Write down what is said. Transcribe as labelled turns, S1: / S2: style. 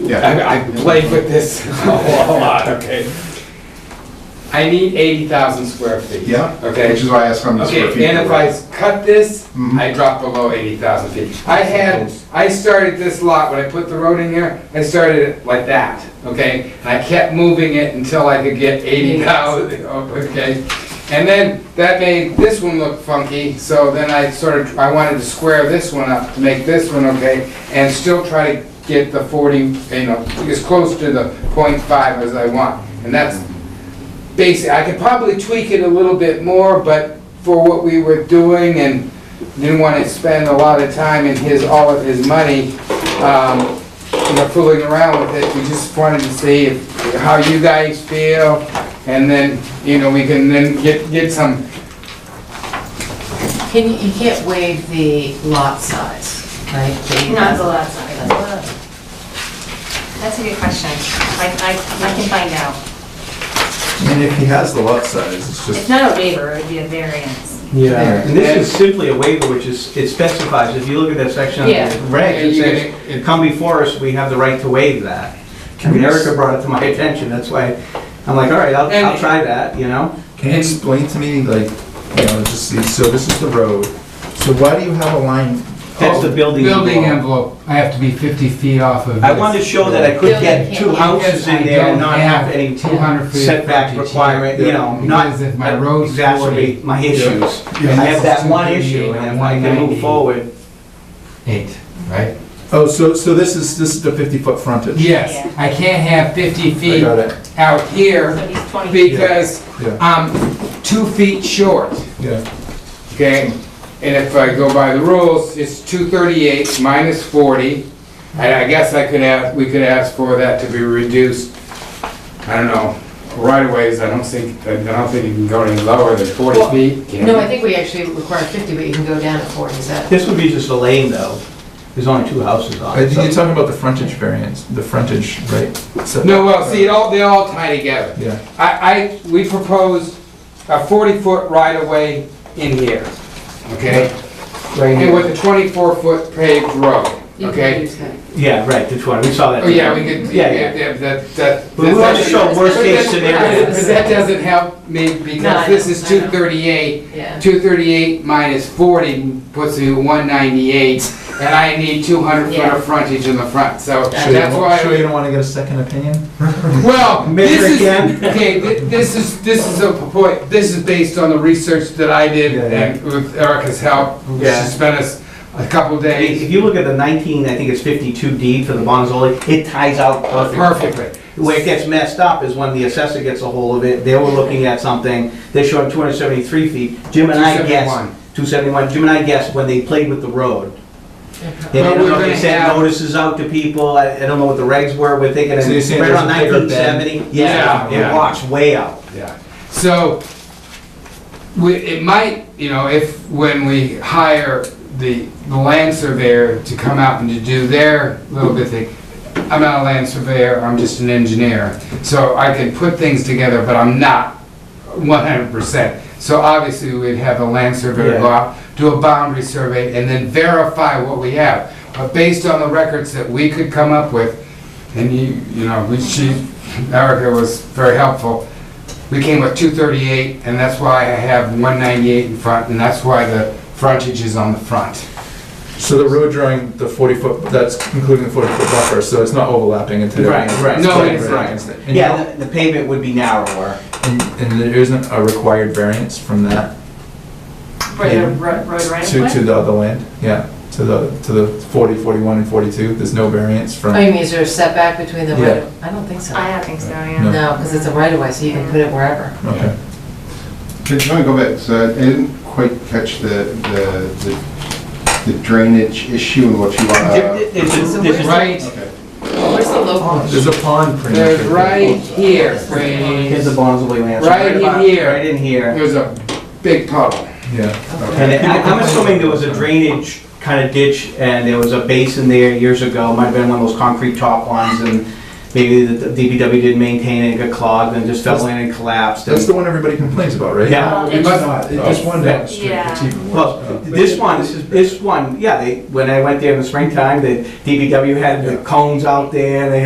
S1: Yeah.
S2: I, I played with this a lot, okay? I need eighty thousand square feet.
S1: Yeah,
S2: Okay.
S1: which is why I asked how many square feet.
S2: Okay, and
S1: there
S2: if
S1: were.
S2: I cut this,
S1: Mhm.
S2: I drop below eighty thousand feet. I had, I started this lot, when I put the road in here, I started it like that, okay? And I kept moving it until I could get eighty thousand, okay? And then that made this one look funky, so then I sort of, I wanted to square this one up to make this one okay, and still try to get the forty, you know, as close to the point five as I want. And that's basic, I could probably tweak it a little bit more, but for what we were doing and didn't want to spend a lot of time and his, all of his money, um, you know, fooling around with it, we just wanted to see if, how you guys feel, and then, you know, we can then get, get some,
S3: Can, you you can't waive the lot size, right? The-
S4: Not the lot size. That's a good question. I, I, I can find out.
S5: And if he has the lot size, it's
S4: It's
S5: just,
S4: not a waiver, it'd be a variance.
S5: Yeah.
S6: Yeah, and this is simply a waiver, which is, it specifies, if you look at that section on
S4: Yeah.
S6: the reg,
S2: And
S6: it
S2: you
S6: says, "If come before us, we have the right to waive that. I mean, Erica brought it to my attention, that's why, I'm like, all right, I'll, I'll try that, you know?
S5: can you explain to me, like, you know, just, see- so this is the road, so why do you have a line?
S6: That's the building
S2: building
S6: envelope.
S2: envelope, I have to be fifty feet off of this.
S6: I wanted to show that I could get
S3: Building
S6: two
S3: can't-
S6: houses in there and not have any
S2: 200 feet of frontage
S6: setback
S2: here.
S6: requirement, you know, not
S2: Because if my road's
S6: exacerbate my issues. I have that one issue, and if I can move forward,
S2: Eight, right?
S5: Oh, so, so this is, this is the fifty-foot frontage?
S2: Yes, I can't have fifty
S5: I
S2: feet
S5: got it,
S2: out here
S4: So he's 20.
S2: because
S5: yeah,
S2: I'm two feet short,
S5: yeah,
S2: okay? And if I go by the rules, it's two thirty-eight minus forty. And I guess I could have, we could ask for that to be reduced, I don't know, right of ways, I don't think, I don't think you can go any lower than forty
S3: Well,
S2: feet. can
S3: No,
S2: you?
S3: I think we actually require 50, but you can go down to 40, is that?
S6: this would be just a lane, though. There's only two houses on
S5: I
S6: it.
S5: think
S6: so-
S5: Uh, you're talking about the frontage variance, the frontage, right? So-
S2: No, Uh, well, see, it all, they all tie together.
S5: Yeah,
S2: I, I, we proposed a forty-foot right-of-way in here, okay?
S6: Right
S2: And
S6: here.
S2: with a twenty-four-foot paved road,
S3: You can
S2: okay?
S3: use that.
S6: Yeah, right, the 20, we saw that.
S2: Oh, yeah, we could,
S6: Yeah,
S2: yeah,
S6: yeah.
S2: yeah, that, that.
S6: But we want to
S2: that's-
S6: show worst case
S2: but that-
S6: scenario.
S2: But that doesn't help me,
S3: No, I
S2: because this
S3: know,
S2: is
S3: I know.
S2: two thirty-eight,
S3: Yeah.
S2: two thirty-eight minus forty puts you one ninety-eight, and I need two hundred foot
S3: Yeah.
S2: of frontage in the front, so
S5: sure you
S2: that's why.
S5: don't, sure you don't wanna get a second opinion?
S2: Well,
S6: Measure
S2: this is,
S6: again.
S2: okay, thi- this is, this is a point, this is based on the research that I did
S5: Yeah, yeah.
S2: and with Erica's help, who
S6: Yeah.
S2: she spent us a couple
S6: I mean, If
S2: days
S6: you look at the 19, I think it's 52 D for the Bonzoli, it ties out perfectly.
S2: perfectly.
S6: Where it gets messed up is when the assessor gets a hold of it, they were looking at something, they showed 273 feet, Jim and I guessed,
S2: 271.
S6: 271, Jim and I guessed when they played with the road. They
S2: But
S6: didn't
S2: we're
S6: know if
S2: gonna
S6: they sent
S2: have-
S6: notices out to people, I I don't know what the regs were, we're thinking,
S5: So you're saying
S6: right around
S5: there's a bigger bend?
S6: 1970?
S2: Yeah,
S6: It
S2: yeah.
S6: walks way out.
S2: Yeah, so, we, it might, you know, if, when we hire the, the land surveyor to come out and to do their little bit thing, I'm not a land surveyor, I'm just an engineer, so I can put things together, but I'm not one hundred percent. So obviously, we'd have a land surveyor go
S6: Yeah.
S2: out, do a boundary survey, and then verify what we have. But based on the records that we could come up with, and you, you know, we, she, Erica was very helpful, we came with two thirty-eight, and that's why I have one ninety-eight in front, and that's why the frontage is on the front.
S5: So the road drawing, the forty-foot, that's including the forty-foot buffer, so it's not overlapping into. the-
S6: Right, right.
S2: No,
S5: Right,
S2: it's
S5: right.
S2: not.
S5: And you
S6: Yeah, the the pavement would be narrower.
S5: And, and there isn't a required variance from that
S4: For the road, road right
S5: to,
S4: of
S5: to
S4: way?
S5: the other land? Yeah, to the, to the 40, 41, and 42, there's no variance
S3: Oh,
S5: from,
S3: you mean, is there a setback between the
S5: Yeah.
S3: right, I Mm. don't think so.
S4: I don't think so, yeah.
S5: No.
S3: No, because it's a right of way, so you can put it wherever.
S5: okay.
S1: Can can I go back, so I didn't quite catch the, the- the the drainage issue and what you want
S6: It's- it's-
S3: So where's-
S6: it's-
S2: Right,
S3: Where's the local?
S5: There's a pond pretty much.
S2: there's right here,
S6: Here's
S2: Wayne.
S6: the Bonzoli Ranch.
S2: Right in
S6: about-
S2: here.
S6: Right in here.
S2: there's a big puddle.
S5: Yeah,
S6: And I- I'm assuming there was a drainage kind of ditch and there was a basin there years ago. Might have been one of those concrete top ones and maybe the DPW didn't maintain it, it got clogged and just fell in and collapsed. and-
S5: That's the one everybody complains about, right?
S6: Yeah.
S4: Well,
S5: It's
S4: it's-
S5: not, it's just one down the street,
S4: Yeah.
S5: it's even worse.
S6: Well, this one, this one, yeah, they, when I went there in the springtime, the DPW had the cones out there, they